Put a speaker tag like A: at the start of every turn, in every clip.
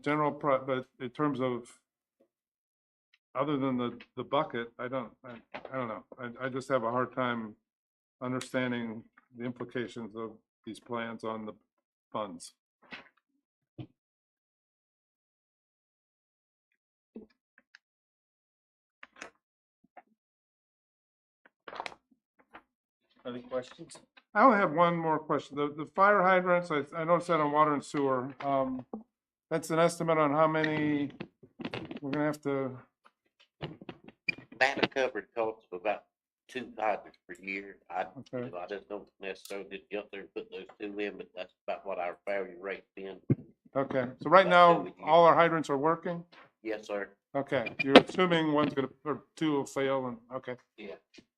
A: general, pro- but in terms of, other than the, the bucket, I don't, I, I don't know. I, I just have a hard time understanding the implications of these plans on the funds.
B: Other questions?
A: I only have one more question. The, the fire hydrants, I, I noticed that on water and sewer. Um, that's an estimate on how many, we're gonna have to,
C: Matter covered costs of about two hydrants per year. I,
A: okay.
C: I just don't necessarily get up there and put those two in, but that's about what our failure rate's been.
A: Okay, so right
C: That's
A: now,
C: what we do.
A: all our hydrants are working?
C: Yes, sir.
A: Okay, you're assuming one's gonna, or two will fail and, okay.
C: Yeah.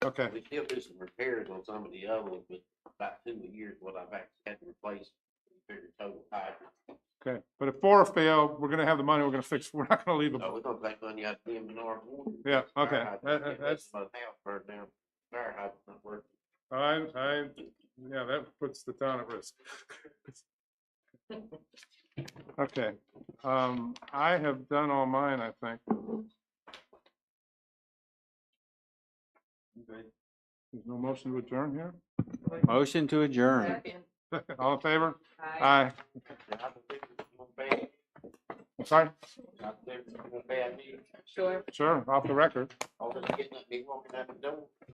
A: Okay,
C: We still do some repairs on some of the other ones, but about two a year is what I've actually had to replace. Figure total hydrant.
A: okay. But if four fail, we're gonna have the money, we're gonna fix, we're not gonna leave them.
C: So we're gonna take money out of the Menard Water.
A: Yeah,
C: Fire
A: okay,
C: hydrant,
A: that-
C: yeah,
A: that- that's,
C: My house burned down. Fire hydrant's not working.
A: I, I, yeah, that puts the town at risk. Okay, um, I have done all mine, I think. There's no motion to adjourn here?
B: Motion to adjourn.
D: Second.
A: All in favor?
D: Aye.
A: Aye.
C: I don't think it's gonna be-
A: I'm Sorry,
C: I don't think it's gonna be a bad deal.
D: Sure.
A: sure, off the record.
C: All this getting up, me walking out the door.